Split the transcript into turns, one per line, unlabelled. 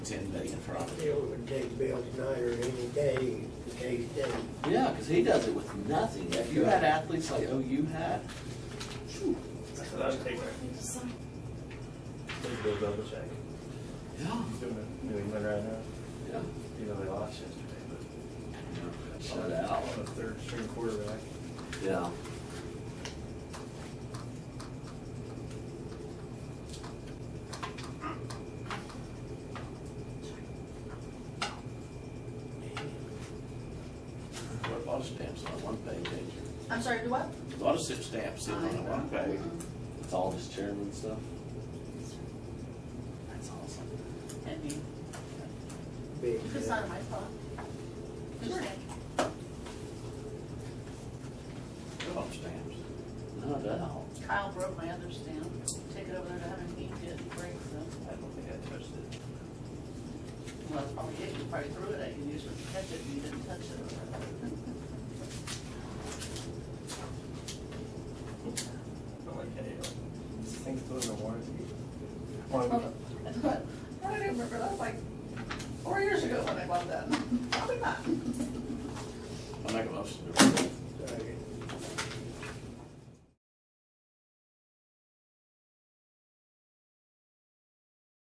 ten million probably.
It would take Bill tonight or any day, the case day.
Yeah, because he does it with nothing. If you had athletes like OU had, phew,
That's what I would take. Please go double check.
yeah,
Doing it in New England right now,
yeah.
you know, they lost yesterday,
Shut out.
but on a third string quarterback.
Yeah. What about stamps on one page, ain't you?
I'm sorry, do what?
A lot of stamp stamps in on one page. It's all just chairman stuff. That's awesome.
Can't be.
Big
It's
deal.
not in my fault.
Sure. Good on stamps. No doubt.
Kyle broke my other stamp. Take it over there to have him inked it and break
I
some.
don't think I touched it.
Well, that's probably it. You probably threw it at you. You just went to catch it and you didn't touch it.
I don't like any of it. Things go in the warranty. Well,